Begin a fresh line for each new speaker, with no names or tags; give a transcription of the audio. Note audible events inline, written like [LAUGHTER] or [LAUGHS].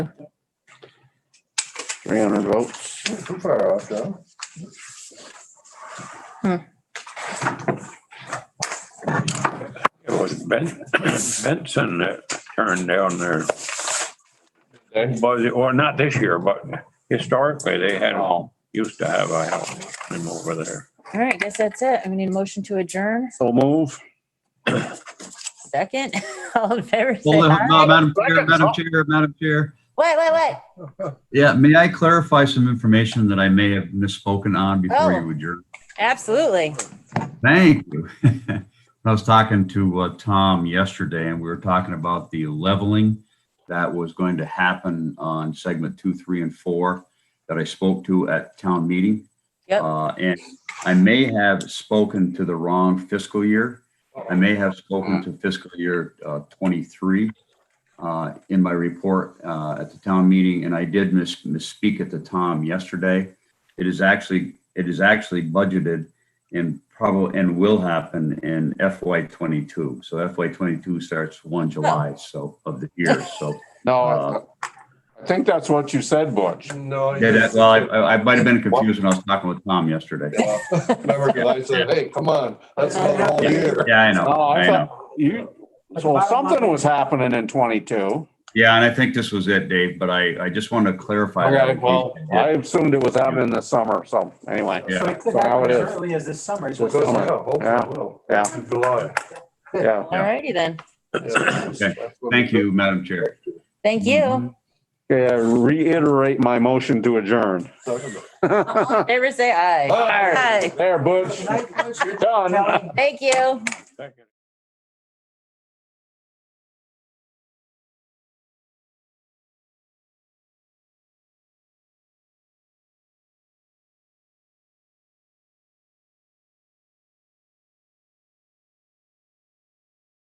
three hundred votes.
Not Too far off, though.
It was Ben, Benson that turned down their, was it, or not this year, but historically, they had, used to have a house in over there.
All right, I guess that's it. I need a motion to adjourn.
So move.
Second, [LAUGHS] all in favor, say
Well, uh,
aye.
Madam Chair, Madam Chair, Madam Chair.
Wait, wait, wait.
Yeah, may I clarify some information that I may have misspoken on before
Oh.
you adjourn?
Absolutely.
Thank you. [LAUGHS] When I was talking to uh, Tom yesterday and we were talking about the leveling that was going to happen on segment two, three, and four that I spoke to at town meeting.
Yep.
Uh, And I may have spoken to the wrong fiscal year. I may have spoken to fiscal year uh, 23 uh, in my report uh, at the town meeting, and I did miss misspeak at the Tom yesterday. It is actually, it is actually budgeted and probably, and will happen in FY '22. So FY '22 starts 1
Oh.
July, so of the
[LAUGHS]
year, so.
No,
Uh,
Oh, I- I think that's what you said, Butch.
No.
Yeah, that, well,
[LAUGHS]
I, I I might have been confused when I was talking with Tom yesterday.
I said, hey, come on, that's not all year.
Yeah, I know,
No, Oh, I
I know.
thought you, so something was happening in twenty-two.
Yeah, and I think this was it, Dave, but I, I just wanted to clarify. that.
Okay, well, I assumed it was happening this summer, so anyway,
Yeah.
So it could
So how
happen
it
as
is.
early as this summer. is
So
what
it goes
you're
now,
saying.
hopefully
Yeah.
it will.
yeah,
In July.
yeah.
All righty then.
Okay. Thank you, Madam Chair.
Thank you.
Okay, I reiterate my motion to adjourn. [LAUGHS]
All in favor, say aye.
Aye.
Aye.
There, Butch,
Good night, Richard.
done.
Kelly.
Thank you.
Second.